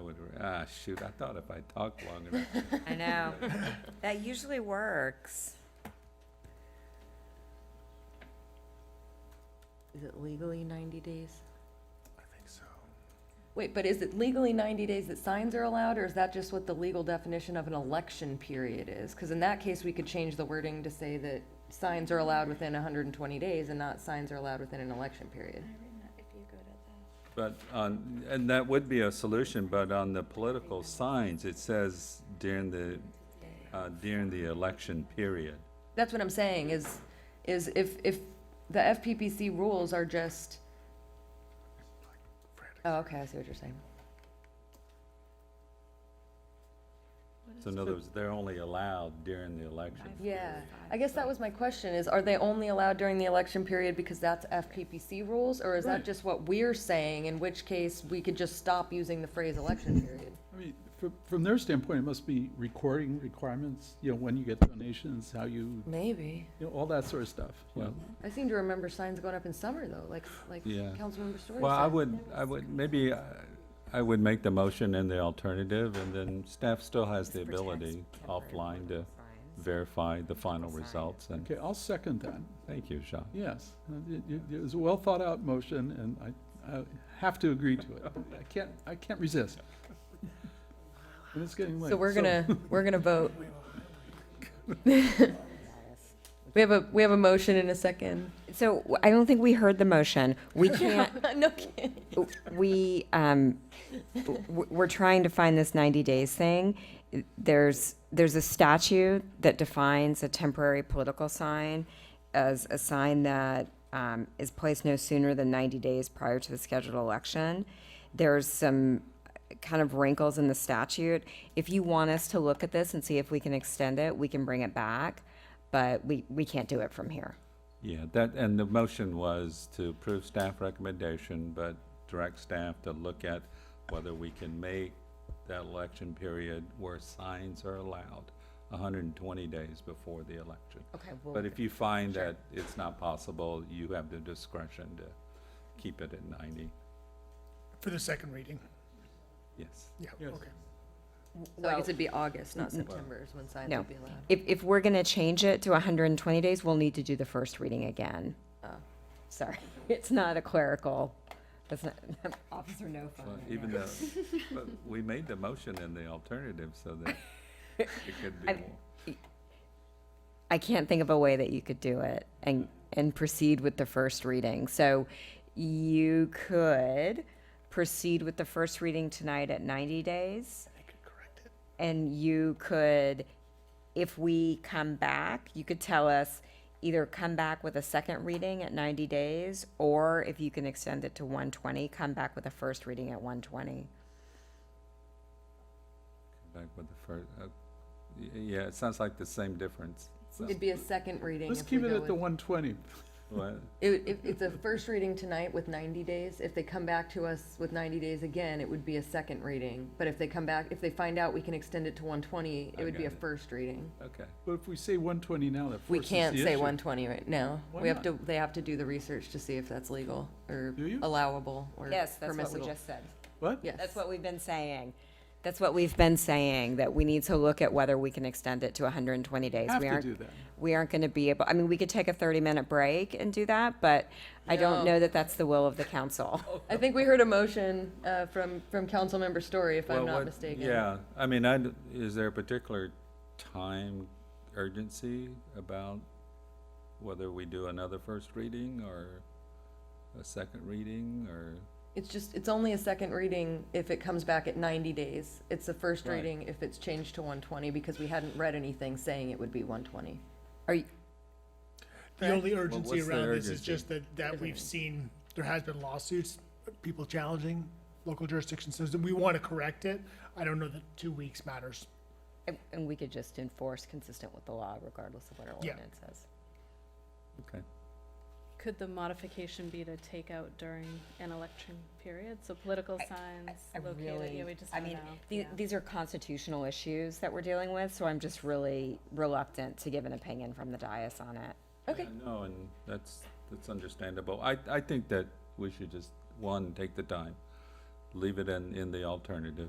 would, ah, shoot, I thought if I talked long enough. I know. That usually works. Is it legally 90 days? I think so. Wait, but is it legally 90 days that signs are allowed, or is that just what the legal definition of an election period is? Because in that case, we could change the wording to say that signs are allowed within 120 days and not signs are allowed within an election period. But on, and that would be a solution, but on the political signs, it says during the, uh, during the election period. That's what I'm saying, is, is if, if the FPPC rules are just, oh, okay, I see what you're saying. So in other words, they're only allowed during the election. Yeah, I guess that was my question, is are they only allowed during the election period because that's FPPC rules? Or is that just what we're saying, in which case we could just stop using the phrase election period? I mean, from, from their standpoint, it must be recording requirements, you know, when you get donations, how you, Maybe. you know, all that sort of stuff, you know. I seem to remember signs going up in summer though, like, like Yeah. Councilmember Story said. Well, I would, I would, maybe uh, I would make the motion and the alternative, and then staff still has the Protects ability temporary offline to political signs. verify the final Sign. results, and, Okay, I'll second that, thank you, Sean. yes. It- It, it was a well-thought-out motion, and I, I have to agree to it. I can't, I can't resist. And it's getting late. So we're gonna, we're gonna vote. We have a, we have a motion in a second. So w- I don't think we heard the motion. We can't, No kidding. we, um, w- we're trying to find this 90 days thing. There's, there's a statute that defines a temporary political sign as a sign that um, is placed no sooner than 90 days prior to the scheduled election. There's some uh, kind of wrinkles in the statute. If you want us to look at this and see if we can extend it, we can bring it back, but we, we can't do it from here. Yeah, that, and the motion was to approve staff recommendation, but direct staff to look at whether we can make that election period where signs are allowed hundred and twenty days before the election. Okay, But if you find that it's not possible, you have the discretion to keep it at ninety, For the second reading, yes. yeah, Yes. okay. So I guess it'd be August, not September is when signs No. would be allowed. If, if we're gonna change it to hundred and twenty days, we'll need to do the first reading again. Sorry, it's not a clerical, that's not, officer no Well, fun. Even though, but we made the motion and the alternative so that it could be I- more. I can't think of a way that you could do it and, and proceed with the first reading. So you could proceed with the first reading tonight at ninety days. They could correct it. and you could, if we come back, you could tell us either come back with a second reading at ninety days, or if you can extend it to one twenty, come back with a first reading at one twenty. Back with the first, uh, y- yeah, it sounds like the same difference. so- It'd be a second reading Let's if we keep it go at the with. one twenty. What? It, if, it's a first reading tonight with ninety days. If they come back to us with ninety days again, it would be a second reading. But if they come back, if they find out we can extend it to one twenty, I it would be got a it. first reading. Okay. But if we say one twenty now, that We forces the can't say issue. one twenty right now. Why We have not? to, they have to do the research to see if that's legal or Do you? allowable or permissible. Yes, that's what we just said. What? Yes. That's what we've been saying. That's what we've been saying, that we need to look at whether we can extend it to hundred and twenty days. Have We to aren't- do that. We aren't gonna be able, I mean, we could take a thirty-minute break and do that, but I don't No. know that that's the will of the council. I think we heard a motion, uh, from, from Councilmember Story, if I'm Well, not what- mistaken. Yeah, I mean, I, d- is there a particular time urgency about whether we do another first reading or a second reading or? It's just, it's only a second reading if it comes back at ninety days. It's a first Right. reading if it's changed to one twenty, because we hadn't read anything saying it would be one twenty. Are you, The only what's urgency the around this is urgency? just that, that we've seen, there has been lawsuits, people challenging local jurisdiction systems. We want to correct it. I don't know that two weeks matters. And- And we could just enforce consistent with the law regardless of what our Yeah. ordinance says. Okay, Could the modification be to take out during an election period? So political signs located, yeah, we just I don't know. mean, the- Yeah. these are constitutional issues that we're dealing with, so I'm just really reluctant to give an opinion from the dais on it. Okay. Yeah, No, and that's, that's understandable. I, I think that we should just, one, take the time, leave it in, in the alternative,